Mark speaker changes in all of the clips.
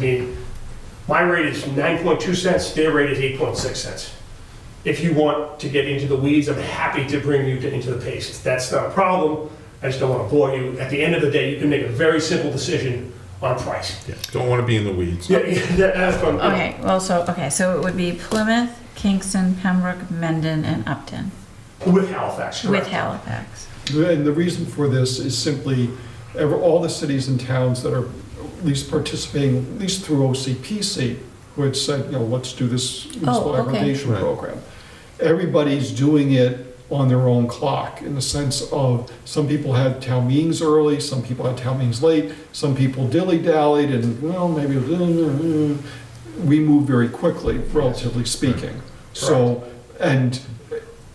Speaker 1: I mean, my rate is 9.2 cents, their rate is 8.6 cents. If you want to get into the weeds, I'm happy to bring you to- into the pace. That's not a problem. I just don't want to bore you. At the end of the day, you can make a very simple decision on price.
Speaker 2: Yeah, don't want to be in the weeds.
Speaker 1: Yeah, yeah, that- that's what I'm-
Speaker 3: Okay, well, so, okay, so it would be Plymouth, Kingston, Pembroke, Mendon, and Upton
Speaker 1: With Halifax,
Speaker 3: with
Speaker 1: correct?
Speaker 3: Halifax.
Speaker 4: And the reason for this is simply, ever- all the cities and towns that are at least participating, at least through OCPC, who had said, you know, let's do this municipal
Speaker 3: okay.
Speaker 4: aggregation
Speaker 2: Right.
Speaker 4: program. Everybody's doing it on their own clock, in the sense of, some people had town meetings early, some people had town meetings late, some people dilly-dallied, and, well, maybe, uh, we move very quickly, relatively speaking. So, and,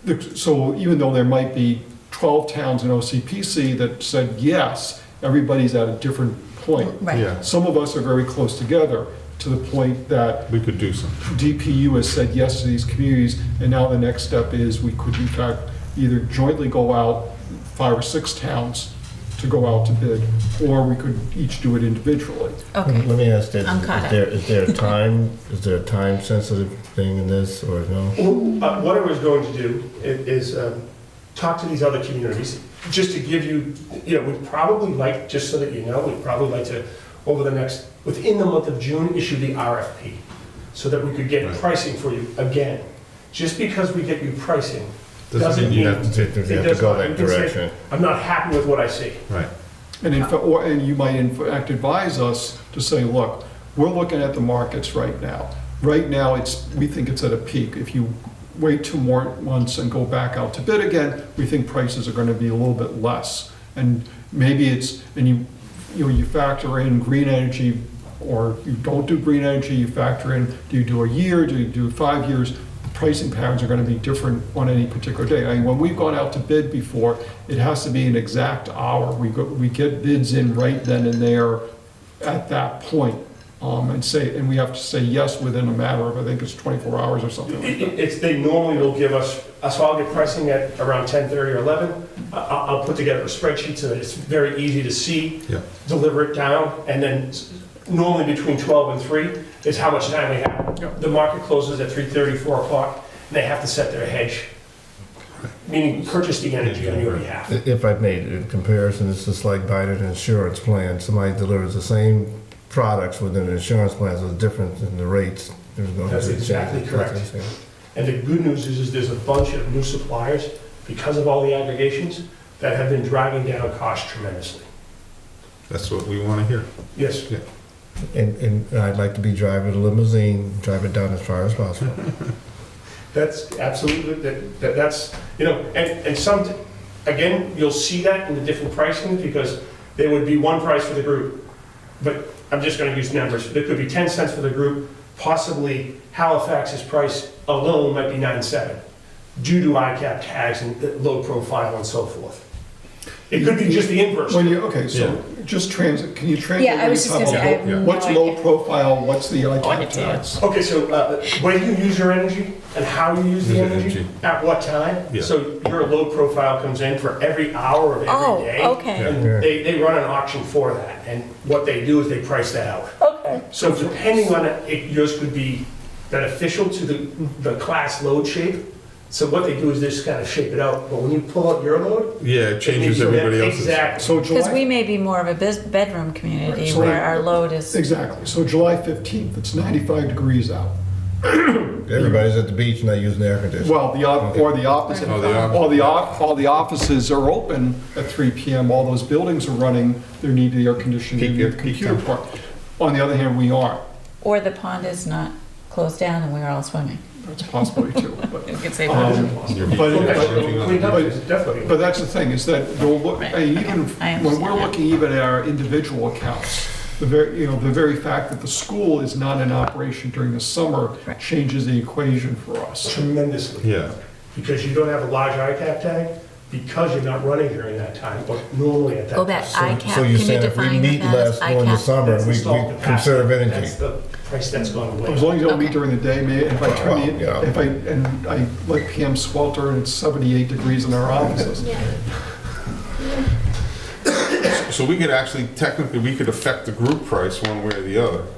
Speaker 4: the- so even though there might be 12 towns in OCPC that said yes, everybody's at a different point.
Speaker 3: Right.
Speaker 2: Yeah,
Speaker 4: Some of us are very close together, to the point that
Speaker 2: we could do something.
Speaker 4: DPU has said yes to these communities, and now the next step is we could in fact either jointly go out, five or six towns, to go out to bid, or we could each do it individually.
Speaker 3: Okay,
Speaker 5: Let me ask this,
Speaker 3: I'm caught
Speaker 5: is there, is there a time, is there a time sensitive thing in this or no?
Speaker 1: Well, uh, What I was going to do i- is um, talk to these other communities, just to give you, you know, we'd probably like, just so that you know, we'd probably like to, over the next, within the month of June, issue the RFP, so that we could get
Speaker 2: Right.
Speaker 1: pricing for you again. Just because we get you pricing,
Speaker 2: Doesn't mean you have to
Speaker 5: take, you
Speaker 1: it
Speaker 5: have to
Speaker 1: does
Speaker 5: go
Speaker 1: not- you
Speaker 5: that
Speaker 1: can say,
Speaker 5: direction.
Speaker 1: I'm not happy with what I see.
Speaker 2: Right.
Speaker 4: And in fact, or, and you might in fact advise us to say, look, we're looking at the markets right now. Right now, it's, we think it's at a peak. If you wait two more months and go back out to bid again, we think prices are gonna be a little bit less. And maybe it's, and you, you know, you factor in green energy, or you don't do green energy, you factor in, do you do a year, do you do five years? pricing patterns are going to be different on any particular day. I mean, when we've gone out to bid before, it has to be an exact hour. We go, we get bids in right then and there at that point, um, and say, and we have to say yes within a matter of, I think it's 24 hours or something like
Speaker 1: It-
Speaker 4: that.
Speaker 1: it- It's, they normally will give us, so I'll get pricing at around 10:30 or 11. I- I'll, I'll put together a spreadsheet so that it's very easy to see.
Speaker 2: Yeah.
Speaker 1: Deliver it down, and then s- normally between 12 and 3 is how much time we have. The market closes at 3:30, 4 o'clock, and they have to set their hedge, meaning purchase the energy on your behalf.
Speaker 5: I- If I made a comparison, it's just like buying an insurance plan. Somebody delivers the same products within an insurance plan, so the difference in the rates. there's going to be
Speaker 1: That's
Speaker 5: a change.
Speaker 1: exactly
Speaker 5: That's what I'm
Speaker 1: correct.
Speaker 5: saying.
Speaker 1: And the good news is, is there's a bunch of new suppliers, because of all the aggregations, that have been driving down costs tremendously.
Speaker 2: That's what we want to hear.
Speaker 1: Yes?
Speaker 5: And, and I'd like to be driving a limousine, drive it down as far as possible.
Speaker 1: That's absolutely, that, that- that's, you know, and, and some, again, you'll see that in the different pricing, because there would be one price for the group, but I'm just gonna use numbers, there could be ten cents for the group, possibly Halifax's price alone might be nine seven, due to ICAP tags and the low profile and so forth. It could be just the inverse.
Speaker 4: When you, okay, so
Speaker 2: Yeah.
Speaker 4: just transit, can you translate?
Speaker 6: Yeah, I was just
Speaker 4: what
Speaker 6: gonna
Speaker 4: you're
Speaker 6: say, I have
Speaker 4: talking
Speaker 2: Yeah.
Speaker 6: no
Speaker 4: about? What's
Speaker 6: idea.
Speaker 4: low profile, what's the ICAP
Speaker 3: Wanted to.
Speaker 4: tax?
Speaker 1: Okay, so uh, when you use your energy and how you use the
Speaker 2: Use the
Speaker 1: energy,
Speaker 2: energy.
Speaker 1: at what time?
Speaker 2: Yeah.
Speaker 1: So your load profile comes in for every hour of
Speaker 3: Oh,
Speaker 1: every day.
Speaker 3: okay.
Speaker 2: Yeah.
Speaker 1: And they, they run an auction for that, and what they do is they price that out.
Speaker 3: Okay.
Speaker 1: So depending on it, it- yours could be beneficial to the, the class load shape. So what they do is they just kind of shape it out, but when you pull out your load.
Speaker 2: Yeah, it
Speaker 1: it
Speaker 2: changes
Speaker 1: may be-
Speaker 2: everybody else's.
Speaker 1: Exactly.
Speaker 4: So
Speaker 3: Because we
Speaker 4: July,
Speaker 3: may be more of a bus- bedroom community
Speaker 4: so
Speaker 3: where
Speaker 4: like-
Speaker 3: our load is,
Speaker 4: exactly, so July 15th, it's 95 degrees out.
Speaker 5: Everybody's at the beach and not using the air conditioning.
Speaker 4: Well, the, op- or the opposite.
Speaker 2: Oh, the op-
Speaker 4: All the, op- all the offices are open at 3 PM, all those buildings are running, they need the air conditioning,
Speaker 2: Peak-
Speaker 4: they need the
Speaker 2: peak
Speaker 4: computer
Speaker 2: time.
Speaker 4: part. On the other hand, we aren't,
Speaker 3: or the pond is not closed down and we're all swimming.
Speaker 4: that's a possibility too. But
Speaker 3: We could say
Speaker 4: Um,
Speaker 3: that.
Speaker 2: Your
Speaker 4: But-
Speaker 2: beach
Speaker 4: but-
Speaker 2: is working on
Speaker 1: Cleaned
Speaker 2: it.
Speaker 1: up is definitely.
Speaker 4: but that's the thing, is that, they'll look-
Speaker 3: Right,
Speaker 4: I mean, even,
Speaker 3: I
Speaker 4: when
Speaker 3: understand
Speaker 4: we're
Speaker 3: that.
Speaker 4: looking even at our individual accounts, the very, you know, the very fact that the school is not in operation during the summer
Speaker 3: Right.
Speaker 4: changes the equation for us.
Speaker 1: Tremendously.
Speaker 2: Yeah,
Speaker 1: because you don't have a large ICAP tag, because you're not running during that time, but normally at that.
Speaker 3: Go back,
Speaker 1: time.
Speaker 3: ICAP,
Speaker 5: So
Speaker 3: can you
Speaker 5: you're saying if we
Speaker 3: define
Speaker 5: meet
Speaker 3: that as
Speaker 5: less during the
Speaker 3: ICAP?
Speaker 5: summer,
Speaker 1: That's
Speaker 5: we
Speaker 1: installed
Speaker 5: we
Speaker 1: capacity.
Speaker 5: conserve energy.
Speaker 1: That's the price that's gone
Speaker 4: As
Speaker 1: away.
Speaker 4: long as you don't meet
Speaker 3: Okay.
Speaker 4: during the day, may, if I turn
Speaker 5: Yeah.
Speaker 4: the, if I, and I let Pam swelter and it's 78 degrees in our offices.
Speaker 2: so we could actually, technically, we could affect the group price one way or the other.